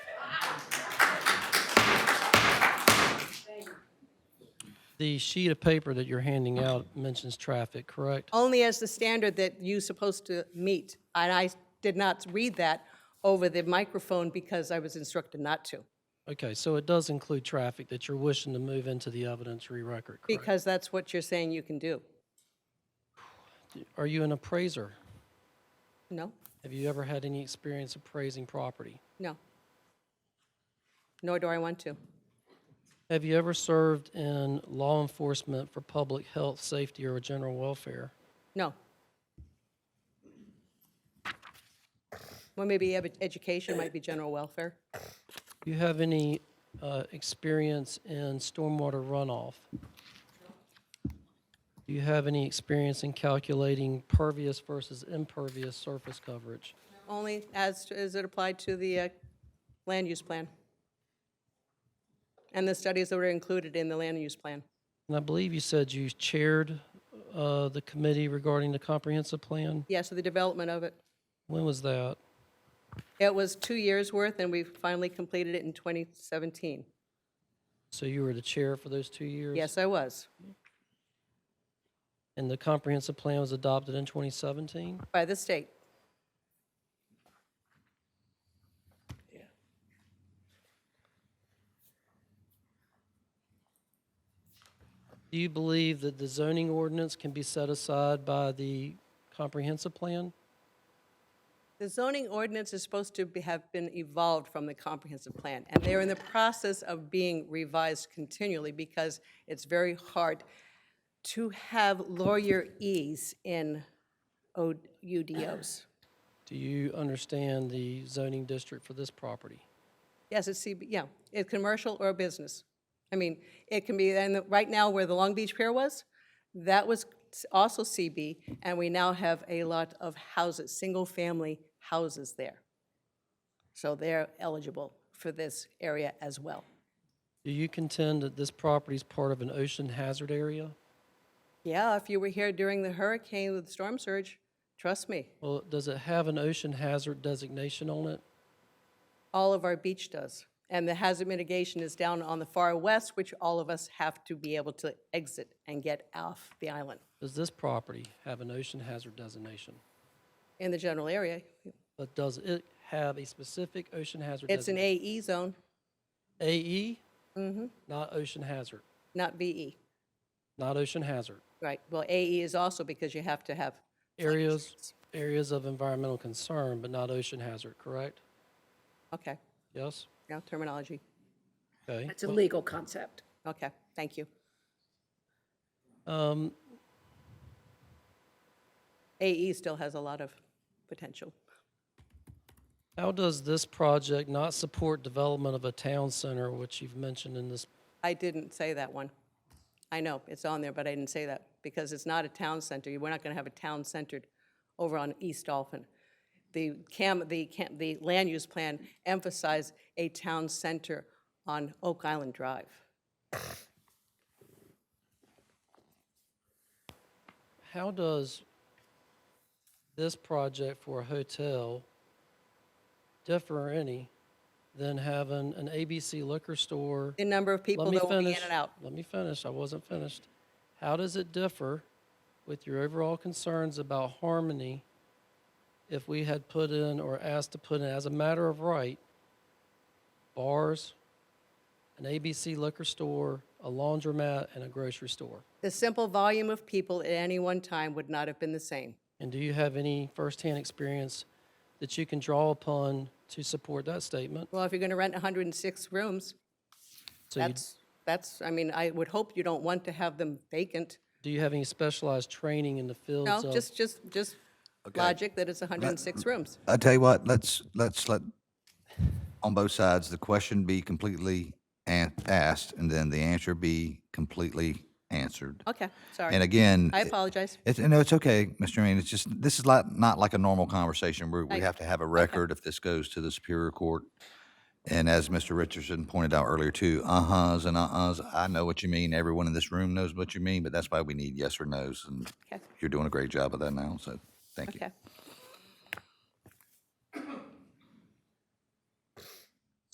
The sheet of paper that you're handing out mentions traffic, correct? only as the standard that you're supposed to meet. And I did not read that over the microphone because I was instructed not to, Okay, so it does include traffic that you're wishing to move into the evidentiary record, correct? because that's what you're saying you can do. Are you an appraiser? No, Have you ever had any experience appraising property? no. Nor do I want to. Have you ever served in law enforcement for public health, safety, or general welfare? No. Well, maybe edu- education might be general welfare. Do you have any uh, experience in stormwater runoff? Do you have any experience in calculating pervious versus impervious surface coverage? Only as, to- as it applied to the uh, land use plan. And the studies that were included in the land use plan. And I believe you said you chaired uh, the committee regarding the comprehensive plan. Yes, so the development of it. When was that? It was two years' worth, and we finally completed it in 2017. So you were the chair for those two years? Yes, I was, And the comprehensive plan was adopted in 2017? by the state. Do you believe that the zoning ordinance can be set aside by the comprehensive plan? The zoning ordinance is supposed to be- have been evolved from the comprehensive plan, and they're in the process of being revised continually because it's very hard to have lawyer ease in O- UDOs. Do you understand the zoning district for this property? Yes, it's CB, yeah, it's commercial or business. I mean, it can be, and the- right now where the Long Beach Pier was, that was s- also CB, and we now have a lot of houses, single-family houses there. So they're eligible for this area as well. Do you contend that this property is part of an ocean hazard area? Yeah, if you were here during the hurricane with the storm surge, trust me, Well, does it have an ocean hazard designation on it? all of our beach does. And the hazard mitigation is down on the far west, which all of us have to be able to exit and get off the island. Does this property have an ocean hazard designation? In the general area, But does it have a specific ocean hazard It's an Mm-hmm. designation? AE zone, AE? Not ocean hazard, not VE, not ocean hazard. right? Well, AE is also because you have to have, Areas, areas of environmental concern, but not ocean hazard, correct? okay, Yes? now terminology. Okay. It's a legal concept. Okay, thank you. Um, AE still has a lot of potential. How does this project not support development of a town center, which you've mentioned in this? I didn't say that one. I know, it's on there, but I didn't say that because it's not a town center. We're not going to have a town centered over on East Dolphin. The cam, the cam, the land use plan emphasized a town center on Oak Island Drive. How does this project for a hotel differ any than having an ABC liquor store? The number of people Let me that will be in finish. and out. Let me finish. I wasn't finished. How does it differ with your overall concerns about harmony if we had put in or asked to put in, as a matter of right, bars, an ABC liquor store, a laundromat, and a grocery store? The simple volume of people at any one time would not have been the same. And do you have any firsthand experience that you can draw upon to support that statement? Well, if you're going to rent 106 rooms, So you- that's, that's, I mean, I would hope you don't want to have them vacant. do you have any specialized training in the fields No, of? just, just, just logic that it's 106 rooms. I tell you what, let's, let's let, on both sides, the question be completely an- asked and then the answer be completely answered. Okay, And sorry. again, I apologize. it's, no, it's okay, Mr. Meehan. It's just, this is like, not like a normal conversation where we have to have a record if this goes to the Superior Court. And as Mr. Richardson pointed out earlier too, uh-huhs and uh-uhs, I know what you mean. Everyone in this room knows what you mean, but that's why we need yes or nos. And Okay. you're doing a great job of that now, so thank you. Okay,